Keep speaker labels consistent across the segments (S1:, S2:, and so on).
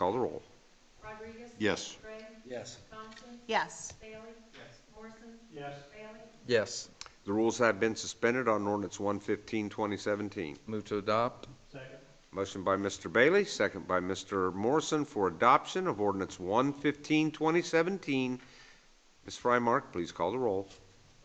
S1: Call the roll.
S2: Rodriguez?
S1: Yes.
S2: Gray?
S3: Yes.
S2: Thompson?
S4: Yes.
S2: Bailey? Yes. Morrison?
S3: Yes.
S2: Bailey?
S5: Yes.
S1: The rules have been suspended on ordinance 115, 2017.
S5: Move to adopt?
S3: Second.
S1: Motion by Mr. Bailey, second by Mr. Morrison for adoption of ordinance 115, 2017. Ms. Frymark, please call the roll.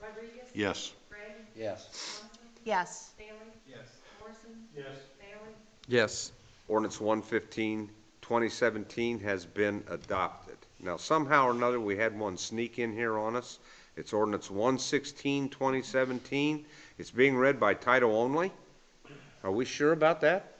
S2: Rodriguez?
S1: Yes.
S2: Gray?
S3: Yes.
S2: Thompson?
S4: Yes.
S2: Bailey?
S3: Yes.
S2: Morrison?
S3: Yes.
S2: Bailey?
S5: Yes.
S1: Ordinance 115, 2017 has been adopted. Now, somehow or another, we had one sneak in here on us. It's ordinance 116, 2017. It's being read by title only. Are we sure about that?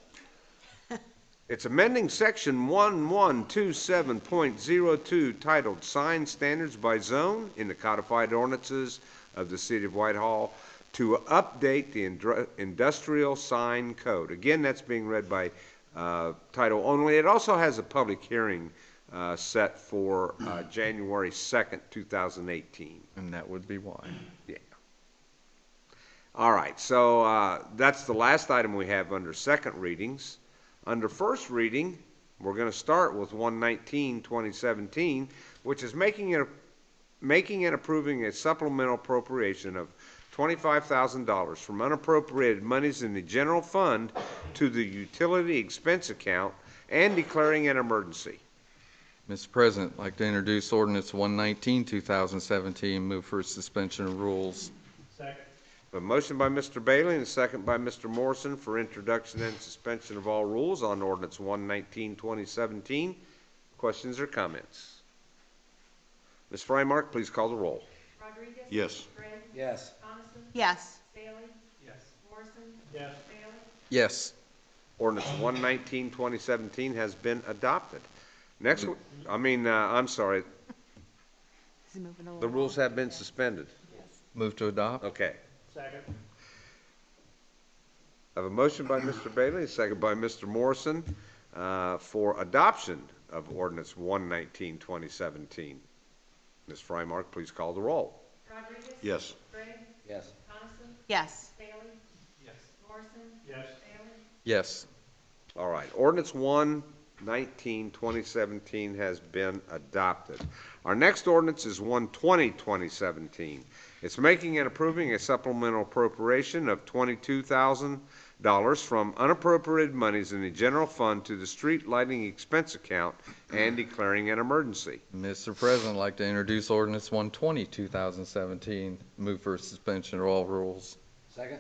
S1: It's amending section 1127.02 titled Sign Standards by Zone in the codified ordinances of the City of Whitehall to update the indru- industrial sign code. Again, that's being read by uh, title only. It also has a public hearing uh, set for uh, January 2nd, 2018.
S5: And that would be why.
S1: All right, so uh, that's the last item we have under second readings. Under first reading, we're going to start with 119, 2017, which is making it, making and approving a supplemental appropriation of $25,000 from unappropriated monies in the general fund to the utility expense account and declaring an emergency.
S5: Mr. President, I'd like to introduce ordinance 119, 2017, move for suspension of rules.
S3: Second.
S1: A motion by Mr. Bailey and a second by Mr. Morrison for introduction and suspension of all rules on ordinance 119, 2017. Questions or comments? Ms. Frymark, please call the roll.
S2: Rodriguez?
S1: Yes.
S2: Gray?
S3: Yes.
S2: Thompson?
S4: Yes.
S2: Bailey?
S3: Yes.
S2: Morrison?
S3: Yes.
S2: Bailey?
S5: Yes.
S1: Ordinance 119, 2017 has been adopted. Next, w- I mean, uh, I'm sorry,
S4: He's moving along.
S1: the rules have been suspended.
S5: Move to adopt?
S1: Okay.
S3: Second.
S1: I have a motion by Mr. Bailey, a second by Mr. Morrison uh, for adoption of ordinance 119, 2017. Ms. Frymark, please call the roll.
S2: Rodriguez?
S1: Yes.
S2: Gray?
S3: Yes.
S2: Thompson?
S4: Yes.
S2: Bailey?
S3: Yes.
S2: Morrison?
S3: Yes.
S2: Bailey?
S5: Yes.
S1: All right, ordinance 119, 2017 has been adopted. Our next ordinance is 120, 2017. It's making and approving a supplemental appropriation of $22,000 from unappropriated monies in the general fund to the street lighting expense account and declaring an emergency.
S5: Mr. President, I'd like to introduce ordinance 120, 2017, move for suspension of all rules.
S3: Second.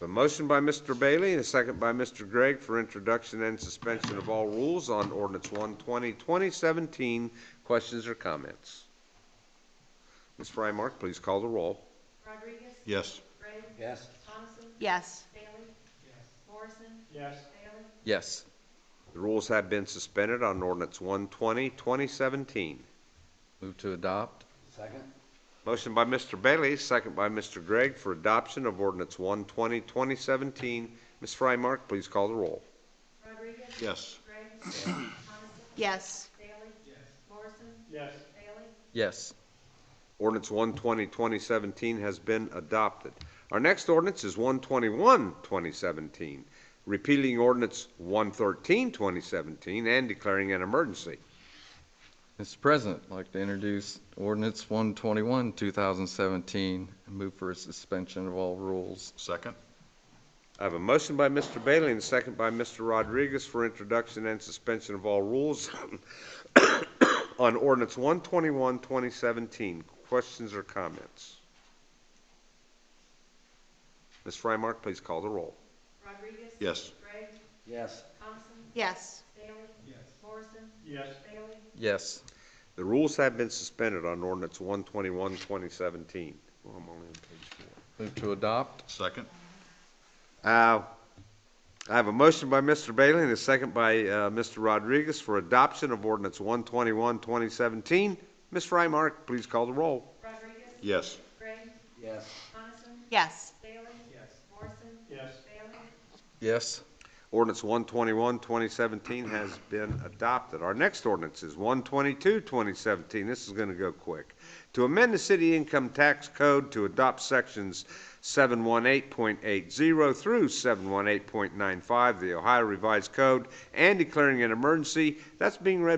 S1: A motion by Mr. Bailey and a second by Mr. Gregg for introduction and suspension of all rules on ordinance 120, 2017. Questions or comments? Ms. Frymark, please call the roll.
S2: Rodriguez?
S1: Yes.
S2: Gray?
S3: Yes.
S2: Thompson?
S4: Yes.
S2: Bailey? Morrison?
S3: Yes.
S2: Bailey?
S5: Yes.
S1: The rules have been suspended on ordinance 120, 2017.
S5: Move to adopt?
S3: Second.
S1: Motion by Mr. Bailey, second by Mr. Gregg for adoption of ordinance 120, 2017. Ms. Frymark, please call the roll.
S2: Rodriguez?
S1: Yes.
S2: Gray? Thompson?
S4: Yes.
S2: Bailey? Morrison?
S3: Yes.
S2: Bailey?
S5: Yes.
S1: Ordinance 120, 2017 has been adopted. Our next ordinance is 121, 2017, repealing ordinance 113, 2017, and declaring an emergency.
S5: Mr. President, I'd like to introduce ordinance 121, 2017, and move for suspension of all rules.
S6: Second?
S1: I have a motion by Mr. Bailey and a second by Mr. Rodriguez for introduction and suspension of all rules on ordinance 121, 2017. Questions or comments? Ms. Frymark, please call the roll.
S2: Rodriguez?
S6: Yes.
S2: Gray?
S3: Yes.
S2: Thompson?
S4: Yes.
S2: Bailey?
S3: Yes.
S2: Morrison?
S3: Yes.
S2: Bailey?
S5: Yes.
S1: The rules have been suspended on ordinance 121, 2017. Well, I'm only on page
S5: Move to adopt?
S6: Second?
S1: four. Uh, I have a motion by Mr. Bailey and a second by uh, Mr. Rodriguez for adoption of ordinance 121, 2017. Ms. Frymark, please call the roll.
S2: Rodriguez?
S6: Yes.
S2: Gray?
S3: Yes.
S2: Coniston?
S4: Yes.
S2: Bailey? Morrison?
S3: Yes.
S2: Bailey?
S5: Yes.
S1: Ordinance 121, 2017 has been adopted. Our next ordinance is 122, 2017. This is going to go quick. To amend the city income tax code to adopt sections 718.80 through 718.95 of the Ohio Revised Code and declaring an emergency. That's being read